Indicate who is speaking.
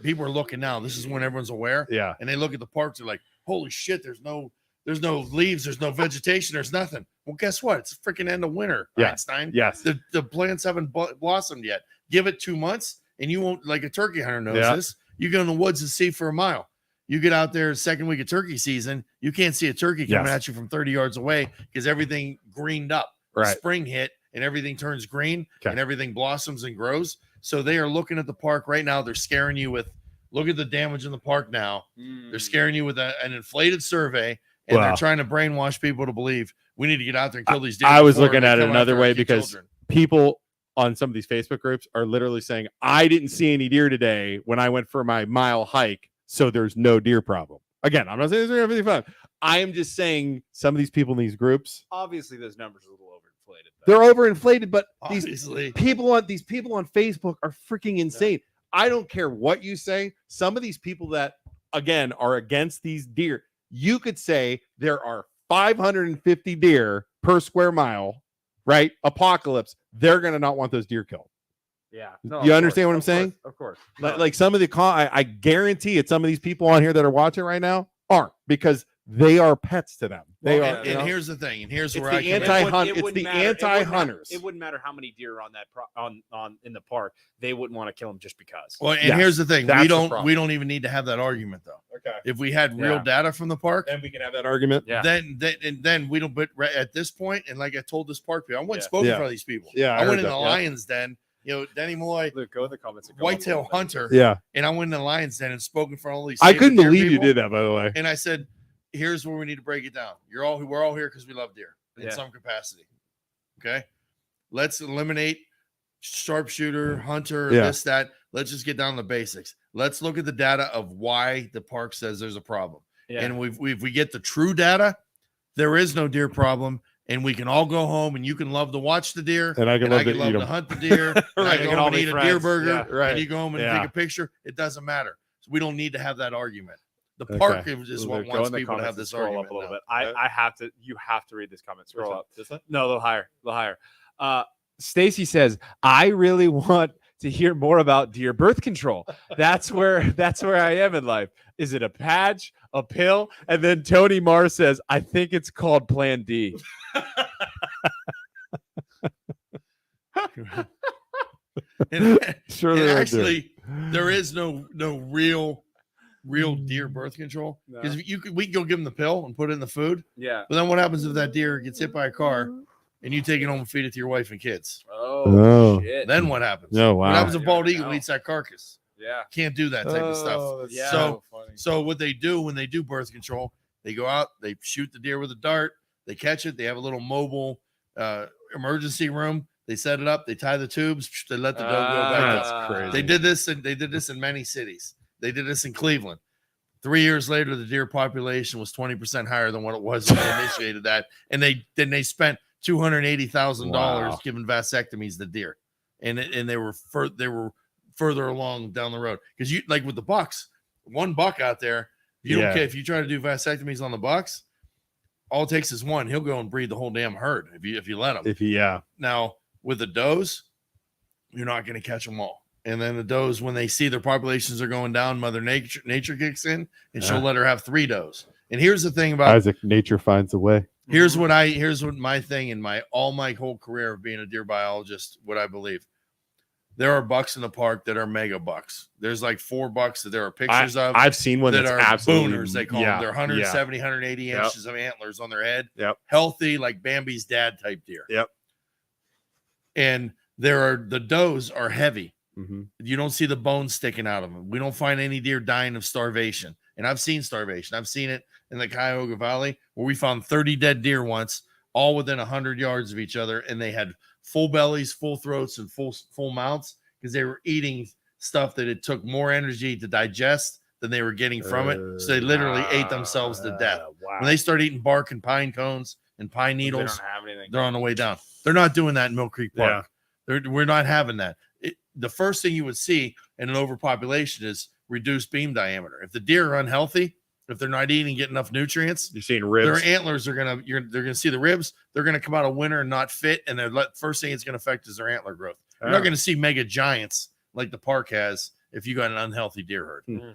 Speaker 1: people are looking now. This is when everyone's aware,
Speaker 2: Yeah.
Speaker 1: and they look at the parks. They're like, "Holy shit! There's no, there's no leaves. There's no vegetation. There's nothing." Well, guess what? It's the freaking end of winter,
Speaker 2: Yeah.
Speaker 1: Einstein.
Speaker 2: Yes.
Speaker 1: The the plants haven't bl- blossomed yet. Give it two months, and you won't like a turkey hunter knows
Speaker 2: Yeah.
Speaker 1: this. You go in the woods and see for a mile. You get out there second week of turkey season, you can't see a turkey coming
Speaker 2: Yes.
Speaker 1: at you from 30 yards away because everything greened up
Speaker 2: Right.
Speaker 1: spring hit and everything turns green
Speaker 2: Okay.
Speaker 1: and everything blossoms and grows. So they are looking at the park right now. They're scaring you with look at the damage in the park now.
Speaker 2: Mm.
Speaker 1: They're scaring you with a- an inflated survey and
Speaker 2: Wow.
Speaker 1: they're trying to brainwash people to believe we need to get out there and kill these deer.
Speaker 2: I was
Speaker 1: before
Speaker 2: looking
Speaker 1: they
Speaker 2: at it
Speaker 1: come after
Speaker 2: another
Speaker 1: our
Speaker 2: way
Speaker 1: kid
Speaker 2: because-
Speaker 1: children.
Speaker 2: People on some of these Facebook groups are literally saying, I didn't see any deer today when I went for my mile hike. So there's no deer problem. Again, I'm not saying there's everything fun. I am just saying some of these people in these groups,
Speaker 3: Obviously, those numbers are a little overinflated.
Speaker 2: they're
Speaker 3: though.
Speaker 2: overinflated, but these
Speaker 1: obviously
Speaker 2: people on these people on Facebook are freaking insane. I don't care what you say. Some of these people that again are against these deer, you could say there are 550 deer per square mile, right? Apocalypse. They're gonna not want those deer killed.
Speaker 3: yeah.
Speaker 2: You
Speaker 3: of course,
Speaker 2: understand what I'm
Speaker 3: of course,
Speaker 2: saying?
Speaker 3: Of course.
Speaker 2: Like,
Speaker 3: No.
Speaker 2: like some of the con- I, I guarantee it. Some of these people on here that are watching right now aren't because they are pets to them. They
Speaker 1: Well,
Speaker 2: are.
Speaker 1: and,
Speaker 2: you
Speaker 1: and
Speaker 2: know?
Speaker 1: here's the thing, and here's
Speaker 2: It's
Speaker 1: where
Speaker 2: the
Speaker 1: I come in.
Speaker 2: anti-
Speaker 3: wouldn't-
Speaker 2: anti-hunt-
Speaker 3: it
Speaker 2: it's
Speaker 3: wouldn't
Speaker 2: the
Speaker 3: matter- it wouldn't matter-
Speaker 2: anti-hunters.
Speaker 3: It wouldn't matter how many deer are on that pro- on on in the park. They wouldn't want to kill them just because.
Speaker 1: well, and
Speaker 2: Yes,
Speaker 1: here's the thing.
Speaker 2: that's the
Speaker 1: We don't
Speaker 2: problem.
Speaker 1: we don't even need to have that argument though.
Speaker 2: okay.
Speaker 1: If we had real
Speaker 3: Yeah.
Speaker 1: data from the park,
Speaker 2: Then we can have that argument.
Speaker 3: Yeah.
Speaker 1: then then and then we don't but right at this point and like i told this park people i went and
Speaker 3: Yeah.
Speaker 1: spoke
Speaker 2: Yeah.
Speaker 1: in front of these people
Speaker 2: Yeah, I
Speaker 1: i,
Speaker 2: heard
Speaker 1: went in
Speaker 2: that,
Speaker 1: the
Speaker 2: yeah.
Speaker 1: lion's den you know denny malloy
Speaker 3: Luke, go in the comments. and go on
Speaker 1: whitetail
Speaker 3: with it.
Speaker 1: hunter
Speaker 2: Yeah.
Speaker 1: and i went in the lion's den and spoke in front of all these
Speaker 2: I
Speaker 1: saber
Speaker 2: couldn't
Speaker 1: deer
Speaker 2: believe you
Speaker 1: people,
Speaker 2: did that, by the way.
Speaker 1: and i said here's where we need to break it down you're all we're all here because we love deer in
Speaker 3: Yeah.
Speaker 1: some capacity okay let's eliminate sharpshooter hunter
Speaker 2: Yeah.
Speaker 1: this that let's just get down to the basics let's look at the data of why the park says there's a problem
Speaker 3: Yeah.
Speaker 1: and we've, we we get the true data, there is no deer problem, and we can all go home and you can love to watch the deer,
Speaker 2: And I
Speaker 1: and
Speaker 2: could love
Speaker 1: I
Speaker 2: to
Speaker 1: can
Speaker 2: eat
Speaker 1: love
Speaker 2: 'em.
Speaker 1: to hunt the deer, and
Speaker 2: Right,
Speaker 1: I can
Speaker 2: we can
Speaker 1: go
Speaker 2: all
Speaker 1: home and
Speaker 2: be
Speaker 1: eat a deer
Speaker 2: friends,
Speaker 1: burger,
Speaker 2: yeah, right.
Speaker 1: and you go home and
Speaker 2: Yeah.
Speaker 1: take a picture. It doesn't matter. So we don't need to have that argument. The
Speaker 2: Okay.
Speaker 1: park is is what
Speaker 2: Go
Speaker 3: Go
Speaker 1: wants
Speaker 3: in the
Speaker 1: people to
Speaker 3: comments
Speaker 1: have
Speaker 3: and
Speaker 1: this
Speaker 3: scroll
Speaker 1: argument.
Speaker 3: up a little
Speaker 1: now.
Speaker 3: bit. I, I have to. You have to read this comment. Scroll up. No, a little higher. A little higher. Uh, Stacy says, "I really want to hear more about deer birth control. That's where that's where I am in life. Is it a patch, a pill?" And then Tony Marr says, "I think it's called Plan D."
Speaker 1: And-
Speaker 2: Sure,
Speaker 1: and
Speaker 2: there are deer.
Speaker 1: actually, there is no no real real deer
Speaker 2: Mm.
Speaker 1: birth control because you could we could go give them the pill and put it in the food,
Speaker 3: Yeah.
Speaker 1: but then what happens if that deer gets hit by a car and you take it home and feed it to your wife and kids?
Speaker 2: Oh.
Speaker 3: shit.
Speaker 1: Then what happens?
Speaker 2: No,
Speaker 1: What
Speaker 2: wow.
Speaker 1: happens if
Speaker 3: Yeah,
Speaker 1: bald
Speaker 3: I
Speaker 1: eagle
Speaker 3: know.
Speaker 1: eats that carcass?
Speaker 3: yeah.
Speaker 1: Can't do that type of
Speaker 2: Oh.
Speaker 1: stuff.
Speaker 3: Oh, yeah.
Speaker 1: so- So what they do when they do birth control, they go out, they shoot the deer with a dart, they catch it, they have a little mobile uh, emergency room, they set it up, they tie the tubes, psh, they let the doe go back.
Speaker 2: That's
Speaker 1: up.
Speaker 3: Ah.
Speaker 2: crazy.
Speaker 1: They did this and they did this in many cities. They did this in Cleveland. Three years later, the deer population was 20% higher than what it was when they initiated that. And they then they spent $280,000
Speaker 2: Wow.
Speaker 1: giving vasectomies to deer. And it, and they were fur, they were further along down the road. Because you like with the bucks, one buck out there, you
Speaker 2: Yeah.
Speaker 1: don't care if you try to do vasectomies on the bucks, all it takes is one. He'll go and breed the whole damn herd if you if you let him.
Speaker 2: If he, yeah,
Speaker 1: Now, with the does, you're not going to catch them all. And then the does, when they see their populations are going down, Mother Nature nature kicks in, and she'll
Speaker 2: Yeah.
Speaker 1: let her have three does. And here's the thing about
Speaker 2: Isaac, nature finds a way.
Speaker 1: here's what I here's what my thing in my all my whole career of being a deer biologist, what I believe. There are bucks in the park that are mega bucks. There's like four bucks that there are pictures of
Speaker 2: I've seen one
Speaker 1: that
Speaker 2: that's
Speaker 1: are
Speaker 2: absolutely
Speaker 1: booners. They call
Speaker 2: yeah,
Speaker 1: them. They're
Speaker 2: yeah.
Speaker 1: 170, 180
Speaker 2: Yep.
Speaker 1: inches of antlers on their head.
Speaker 2: Yep.
Speaker 1: Healthy, like Bambi's dad type deer.
Speaker 2: Yep.
Speaker 1: And there are the does are heavy.
Speaker 2: Mhm.
Speaker 1: You don't see the bones sticking out of them. We don't find any deer dying of starvation. And I've seen starvation. I've seen it in the Cuyahoga Valley where we found 30 dead deer once, all within 100 yards of each other. And they had full bellies, full throats, and full full mouths because they were eating stuff that it took more energy to digest than they were getting from it. So they literally ate themselves to death.
Speaker 3: Ah, Uh, Wow.
Speaker 1: When they start eating bark and pine cones and pine
Speaker 3: They don't
Speaker 1: needles,
Speaker 3: have anything.
Speaker 1: they're on the way down. They're not doing that in Mill Creek Park. They're, we're not having that. It, the first thing you would see in an overpopulation is reduced beam diameter. If the deer are unhealthy, if they're not eating and getting enough nutrients,
Speaker 2: You're seeing ribs.
Speaker 1: their antlers are gonna you're, they're gonna see the ribs. They're gonna come out of winter and not fit,
Speaker 3: Ah.
Speaker 1: and they're let, first thing it's gonna affect is their antler growth. You're
Speaker 2: Oh.
Speaker 1: not gonna see mega giants like the park has if you got an unhealthy deer herd.